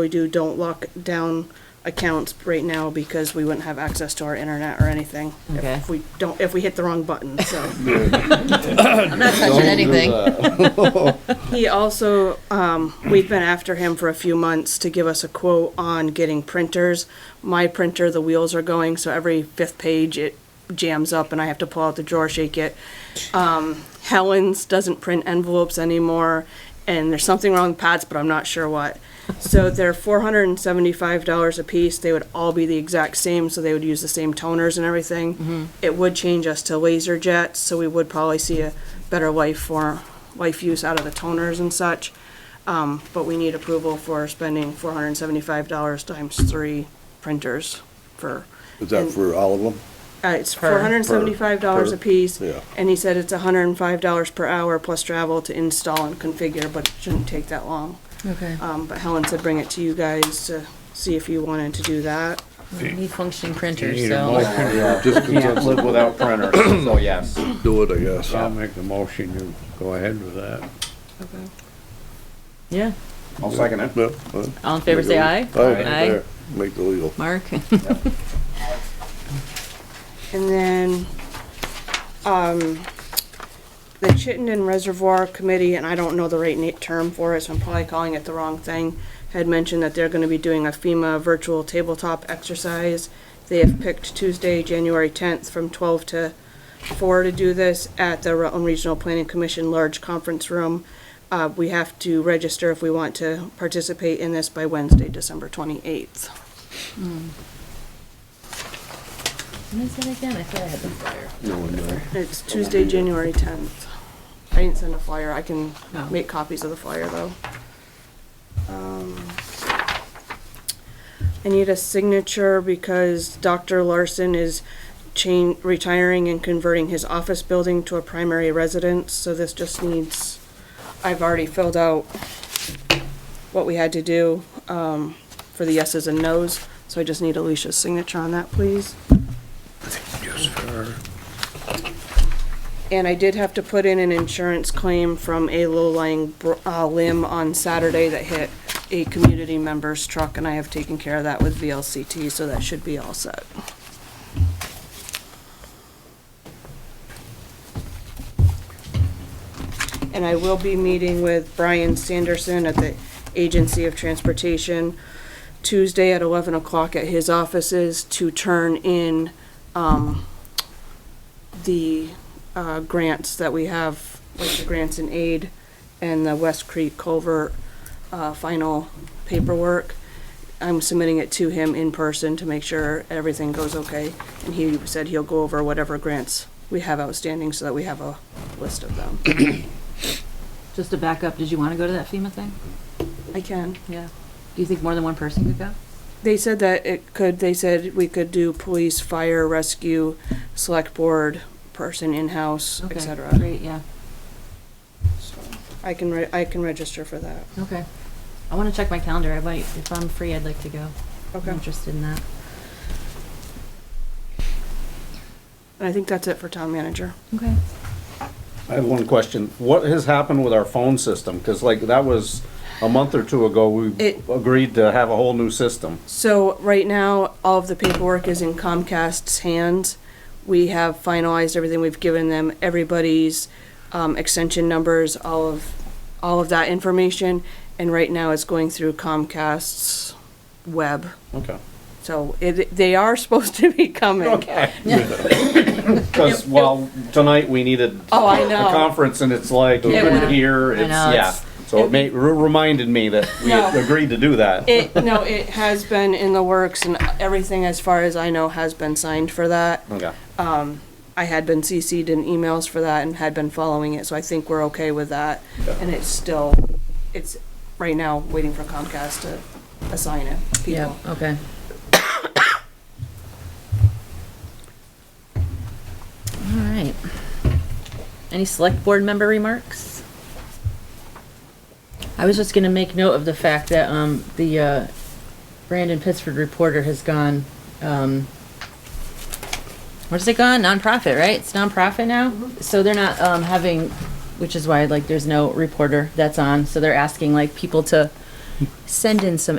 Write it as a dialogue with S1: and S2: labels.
S1: we do, don't lock down accounts right now because we wouldn't have access to our internet or anything. if
S2: Okay.
S1: We don't, if we hit the wrong button, so.
S2: I'm not touching anything.
S1: He also, um, we've been after him for a few months to give us a quote on getting printers. My printer, the wheels are going, so every fifth page it jams up and I have to pull out the drawer, shake it. Um, Helen's doesn't print envelopes anymore and there's something wrong with pads, but I'm not sure what. So they're four hundred and seventy-five dollars a piece. They would all be the exact same, so they would use the same toners and
S3: Mm-hmm.
S1: everything. It would change us to laser jets, so we would probably see a better life for, life use out of the toners and such. Um, but we need approval for spending four hundred and seventy-five dollars times three printers for.
S3: Is that
S1: and-
S3: for all of them?
S1: Uh, it's four hundred and seventy-five dollars
S3: Per-
S1: a piece.
S3: yeah.
S1: And he said it's hundred and five dollars per hour plus travel to install and configure, but it shouldn't take that long.
S2: Okay.
S1: Um, but Helen said bring it to you guys to see if you wanted to do that.
S2: We need functioning
S4: You
S2: printers,
S4: need a
S2: so.
S4: motion, yeah,
S3: Just
S5: Can't live without printers, so yes.
S3: do it, I guess.
S4: I'll make the motion, you go ahead with that.
S1: Okay.
S2: Yeah.
S5: I'll second it.
S3: No, uh,
S2: All in favor, say aye.
S3: Aye, make the legal.
S2: Mark?
S1: And then, um, the Chittenden Reservoir Committee, and I don't know the right na- term for it, so I'm probably calling it the wrong thing, had mentioned that they're gonna be doing a FEMA virtual tabletop exercise. They have picked Tuesday, January tenth, from twelve to four to do this at the Rutland Regional Planning Commission Large Conference Room. Uh, we have to register if we want to participate in this by Wednesday, December twenty-eighth.
S2: What is that again? I thought I had the flyer.
S1: It's Tuesday, January tenth. I didn't send a flyer, I can
S2: No.
S1: make copies of the flyer though. Um, I need a signature because Dr. Larson is chain, retiring and converting his office building to a primary residence, so this just needs, I've already filled out what we had to do, um, for the yeses and nos, so I just need Alicia's signature on that, please. And I did have to put in an insurance claim from a low-lying br- uh, limb on Saturday that hit a community member's truck, and I have taken care of that with VLCT, so that should be all set. And I will be meeting with Brian Sanderson at the Agency of Transportation Tuesday at 11 o'clock at his offices to turn in um, the uh, grants that we have, like the grants and aid and the West Creek Culvert uh, final paperwork. I'm submitting it to him in person to make sure everything goes okay. And he said he'll go over whatever grants we have outstanding so that we have a list of them.
S2: Just to back up, did you want to go to that FEMA thing?
S1: I can.
S2: Yeah. Do you think more than one person could go?
S1: They said that it could, they said we could do police, fire, rescue, select board, person in-house,
S2: Okay,
S1: et cetera.
S2: Great, yeah.
S1: So, I can, re- I can register for that.
S2: Okay. I want to check my calendar. I might, if I'm free, I'd like to go. I'm interested in that.
S1: And I think that's it for town manager.
S2: Okay.
S5: I have one question. What has happened with our phone system? Because like, that was a month or two ago, we
S1: It-
S5: agreed to have a whole new system.
S1: So right now, all of the paperwork is in Comcast's hands. We have finalized everything. We've given them everybody's um, extension numbers, all of, all of that information. And right now, it's going through Comcast's web.
S5: Okay.
S1: So it, they are supposed to be coming.
S5: Okay. Because, well, tonight we needed.
S1: Oh, I know.
S5: A conference and it's like, you
S2: It
S5: couldn't
S2: was-
S5: hear,
S2: I
S5: it's,
S2: know,
S5: yeah.
S2: it's-
S5: So it made, reminded me that we had
S1: No.
S5: agreed to do that.
S1: It, no, it has been in the works and everything, as far as I know, has been signed for that.
S5: Okay.
S1: I had been CC'd in emails for that and had been following it, so I think we're okay with that. And it's still, it's right now waiting for Comcast to assign it, people.
S2: okay. All right. Any select board member remarks? I was just gonna make note of the fact that, um, the, uh, Brandon Pittsford reporter has gone, um, where's it gone? Nonprofit, right? It's nonprofit now? So they're not, um, having, which is why, like, there's no reporter that's on, so they're asking, like, people to send in some